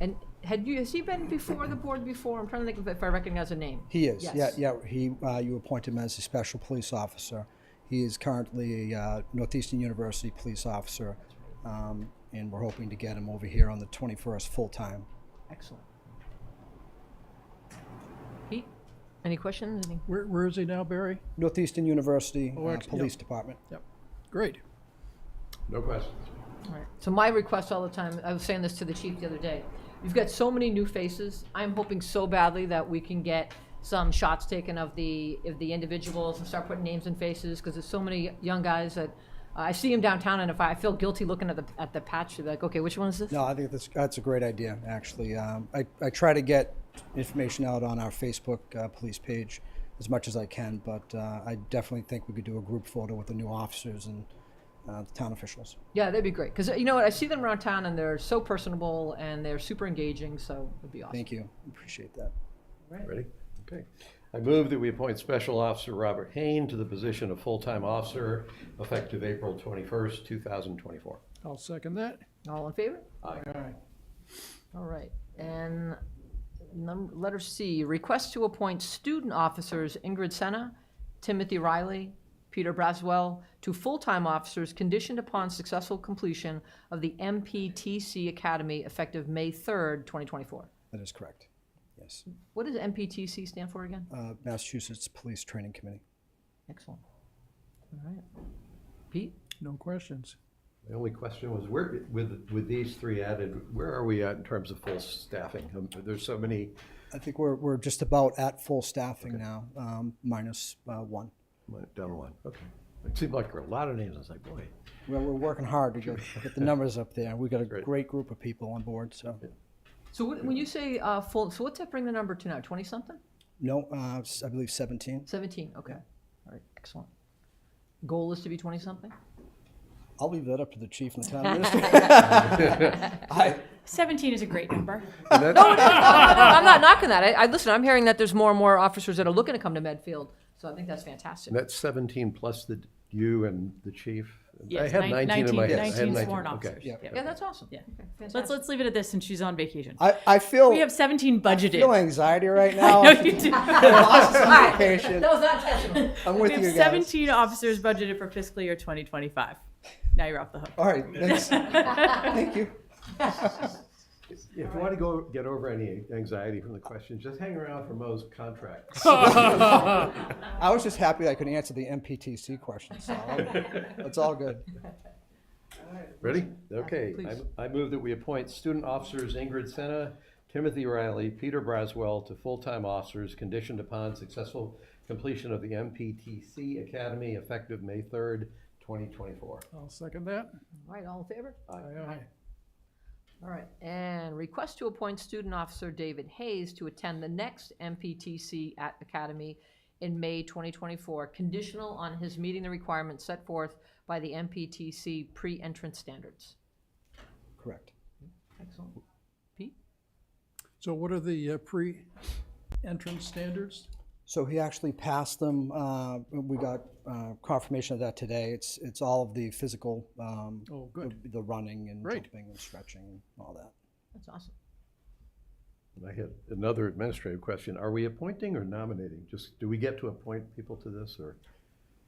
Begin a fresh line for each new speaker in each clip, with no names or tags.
And had you, has he been before the board before? I'm trying to think if- if I recognize a name.
He is, yeah,
Yes.
yeah, he, uh, you appoint him as a special police officer. He is currently a uh, Northeastern University police officer, um, and we're hoping to get him over here on the 21st full-time.
Excellent. Pete, any questions? Any?
Where, where is he now, Barry?
Northeastern University
Oh,
uh,
ex- yeah.
Police Department.
Yep. Great.
No questions.
Right. So my request all the time, I was saying this to the chief the other day, you've got so many new faces. I'm hoping so badly that we can get some shots taken of the, of the individuals and start putting names and faces, because there's so many young guys that, uh, I see them downtown and if I I feel guilty looking at the, at the patch, you're like, okay, which one is this?
No, I think that's, that's a great idea, actually. Um, I, I try to get information out on our Facebook uh, police page as much as I can, but uh, I definitely think we could do a group photo with the new officers and uh, the town officials.
Yeah, that'd be great, because you know what, I see them around town and they're so personable and they're super engaging, so it'd be awesome.
Thank you. Appreciate that.
Ready? Okay. I move that we appoint Special Officer Robert Hain to the position of full-time officer effective April 21st, 2024.
I'll second that.
All in favor?
Aye.
All right, and num, letter C, request to appoint student officers Ingrid Senna, Timothy Riley, Peter Braswell to full-time officers conditioned upon successful completion of the MPTC Academy effective May third, twenty twenty-four.
That is correct. Yes.
What does MPTC stand for again?
Uh, Massachusetts Police Training Committee.
Excellent. All right. Pete?
No questions.
The only question was, where, with, with these three added, where are we at in terms of full staffing? Um, There's so many,
I think we're, we're just about at full staffing now, um, minus uh, one.
down one, okay. It seemed like there were a lot of names, I was like, boy.
Well, we're working hard to get, get the numbers up there. We've got a
Great.
great group of people on board, so.
So what- when you say, uh, full, so what's that bring the number to now, twenty-something?
No, uh, s- I believe 17.
Seventeen, okay. All right, excellent. Goal is to be twenty-something?
I'll leave that up to the chief and the town administrator. I,
17 is a great number.
And that's-
I'm not knocking that. I, I listen. I'm hearing that there's more and more officers that are looking to come to Medfield, so I think that's fantastic.
and that's 17 plus the, you and the chief? I
Yes,
had
nine-
19 in my head.
19
I had
19 sworn
19, okay.
officers.
Yeah.
yeah, that's awesome.
Yeah.
Okay,
Let's,
fantastic.
let's leave it at this since she's on vacation.
I, I feel,
We have 17 budgeted.
feel anxiety right now.
No, you do.
Lost some
All right.
vacation.
That was not intentional.
I'm
We
with
have
you guys.
17 officers budgeted for fiscal year 2025. Now you're off the hook.
All right, thanks. Thank you.
Yeah, If you want to go get over any anxiety from the question, just hang around for Mo's contract.
I was just happy I could answer the MPTC question, so it's all good.
Ready? Okay. I-
please.
I move that we appoint student officers Ingrid Senna, Timothy Riley, Peter Braswell to full-time officers conditioned upon successful completion of the MPTC Academy effective May 3rd, 2024.
I'll second that.
All right, all in favor?
Aye, aye.
All right, and request to appoint student officer David Hayes to attend the next MPTC at Academy in May 2024, conditional on his meeting the requirements set forth by the MPTC pre-entrance standards.
Correct.
Excellent. Pete.
So what are the uh, pre-entrance standards?
So he actually passed them. Uh, we got uh, confirmation of that today. It's it's all of the physical, um,
Oh, good.
the, the running and
Great.
jumping and stretching and all that.
That's awesome.
And I had another administrative question. Are we appointing or nominating? Just, do we get to appoint people to this or?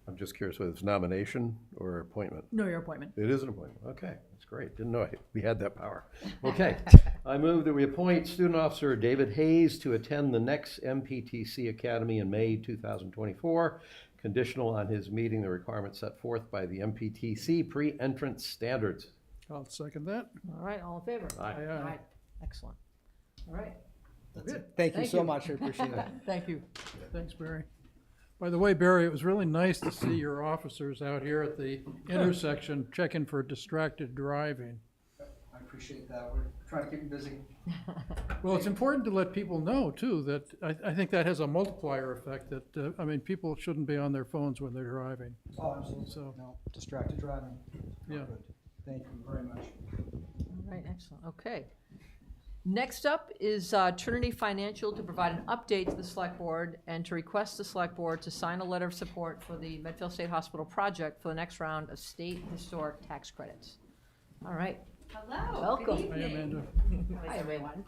I'm just curious whether it's nomination or appointment.
No, your appointment.
It is an appointment, okay, that's great, didn't know I- we had that power. Okay, I move that we appoint student officer David Hayes to attend the next MPTC Academy in May 2024, conditional on his meeting the requirements set forth by the MPTC pre-entrance standards.
I'll second that.
All right, all in favor?
Aye.
Aye,
All
aye.
right, excellent. All right,
That's it. Thank you
Thank
so
you.
much. I appreciate it.
thank you.
Thanks, Barry. By the way, Barry, it was really nice to see your officers out here at the intersection checking for distracted driving.
I appreciate that. We're trying to keep you busy.
Well, it's important to let people know too, that, I, I think that has a multiplier effect that, uh, I mean, people shouldn't be on their phones when they're driving.
Oh, absolutely.
So-
No, distracted driving. Not
Yeah.
good. Thank you very much.
All right, excellent, okay. Next up is uh, Trinity Financial to provide an update to the Select Board and to request the Select Board to sign a letter of support for the Medfield State Hospital project for the next round of state historic tax credits. All right,
Hello.
Welcome.
Good
Hi,
evening.
Amanda.
hi, everyone.